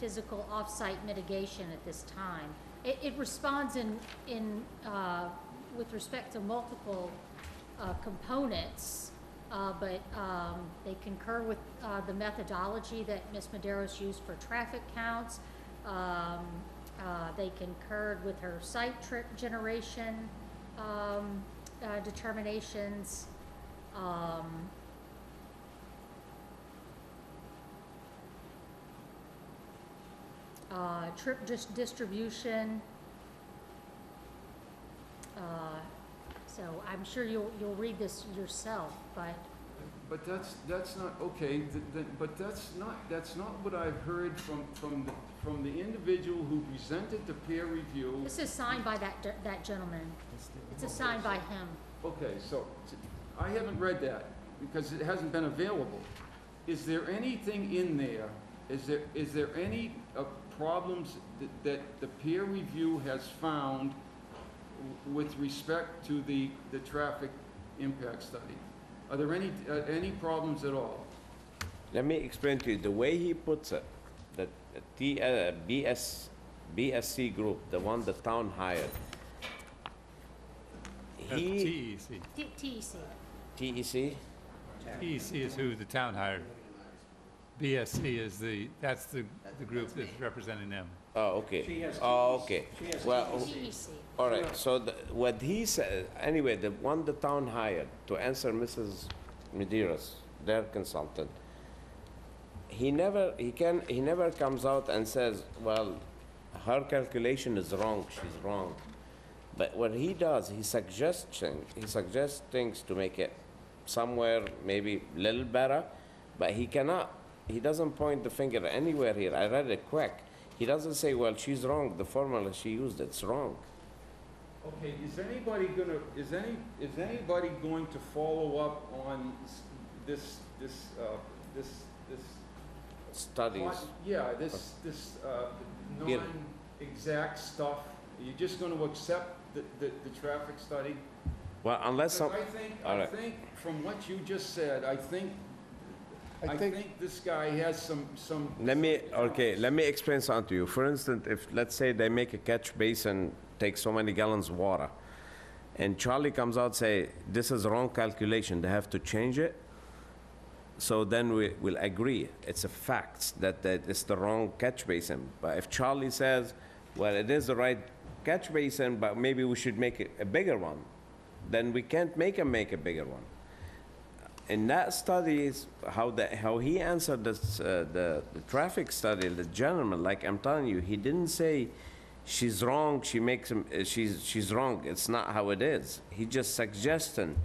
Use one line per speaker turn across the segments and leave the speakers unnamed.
physical off-site mitigation at this time. It, it responds in, in, uh, with respect to multiple, uh, components, uh, but, um, they concur with, uh, the methodology that Ms. Maderos used for traffic counts. Um, uh, they concurred with her site trip generation, um, uh, determinations. Um, uh, trip dis- distribution. Uh, so I'm sure you'll, you'll read this yourself, but,
But that's, that's not, okay, th- th- but that's not, that's not what I've heard from, from, the- from the individual who presented the peer review.
this is signed by that, ge- that gentleman. It's assigned by him.
Okay, so, t- I haven't read that, because it hasn't been available. Is there anything in there, is there, is there any uh, problems th- that the peer review has found w- with respect to the, the traffic impact study? Are there any, uh, any problems at all?
Let me explain to you, the way he puts it, the T, uh, BS, BSC group, the one the town hired. He, E
TEC.
T- E TEC.
TEC,
TEC E is who the town hired. BSC is the, that's the, the group that's representing them.
oh, okay. Oh, okay, well,
TEC.
all right, so the, what he said, anyway, the one the town hired to answer Mrs. Medeiros, their consultant, he never, he can, he never comes out and says, well, her calculation is wrong, she's wrong. But what he does, he suggests, thing- he suggests things to make it somewhere maybe little better, but he cannot, he doesn't point the finger anywhere here. I read it quick. He doesn't say, well, she's wrong, the formula she used, it's wrong.
Okay, is anybody gonna, is any, is anybody going to follow up on s- this, this, uh, this, this
Studies.
Well, Yeah, this, this, uh,
Yeah.
non-exact stuff, you're just gonna accept the, the, the traffic study?
Well, unless
Because
some,
I think,
all
I
right.
think, from what you just said, I think,
I
I
think-
think this guy has some, some.
let me, okay, let me explain something to you. For instance, if, let's say they make a catch basin, take so many gallons of water, and Charlie comes out say, this is wrong calculation, they have to change it, so then we will agree, it's a fact that, that it's the wrong catch basin. But if Charlie says, well, it is the right catch basin, but maybe we should make it a bigger one, then we can't make him make a bigger one. in that study is how the how he answered this, uh, the the traffic study the gentleman like i'm telling you he didn't say she's wrong she makes him uh, she's she's wrong it's not how it is he just suggesting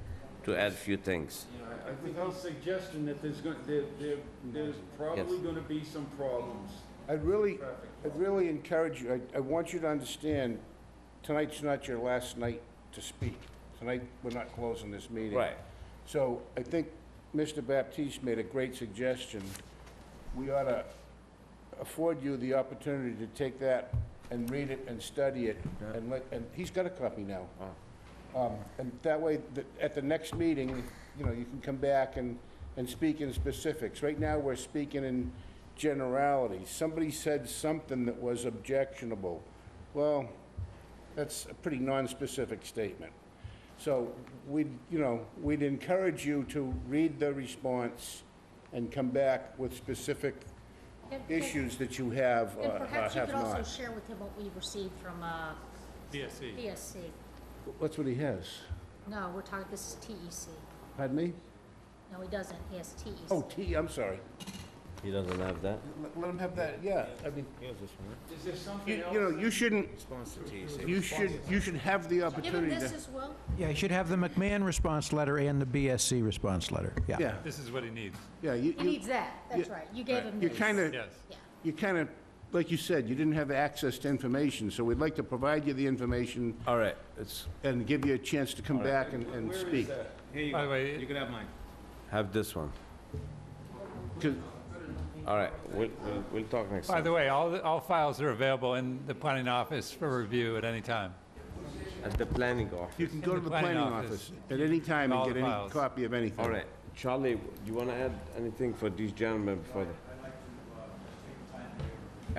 to add few things
You know, I- I think he's suggesting that there's gonna, there, there, there's probably gonna be some problems.
I'd really,
Traffic.
I'd really encourage you, I, I want you to understand, tonight's not your last night to speak. Tonight, we're not closing this meeting.
Right.
So I think Mr. Baptiste made a great suggestion. We ought to afford you the opportunity to take that and read it and study it, and let, and he's got a copy now. Um, And that way, the- at the next meeting, you know, you can come back and, and speak in specifics. Right now, we're speaking in generalities. Somebody said something that was objectionable. Well, that's a pretty nonspecific statement. So we'd, you know, we'd encourage you to read the response and come back with specific
And- and-
issues that you have
And
or or
perhaps you
have
could also
not.
share with him what we received from, uh,
BSC.
PSC.
That's what he has.
No, we're talking, this is TEC.
Pardon me?
No, he doesn't, he has E TEC.
Oh, T, I'm sorry.
he doesn't have that
Let- Let him have that, yeah, I mean,
Is there
you
something
you know,
else?
you shouldn't, you should, you should have the
Give him
opportunity to.
this as well.
Yeah, you should have the McMahon response letter and the BSC response letter, yeah.
Yeah,
This is what he needs,
yeah, you,
He
you,
needs that, that's right. You gave him
you
these.
kind of,
yes.
Yeah.
you kind of, like you said, you didn't have access to information, so we'd like to provide you the information
all right it's
and give you a chance to come back and, and
Where is
speak.
that?
By the way,
have this one
'Cause-
all right we'll we'll, we'll talk next
by
time
the way, all, the- all files are available in the planning office for review at any time.
at the planning office
You can go to the planning office at any time
All
and
the
get any
files.
copy of anything.
all right charlie you want to add anything for these gentlemen before the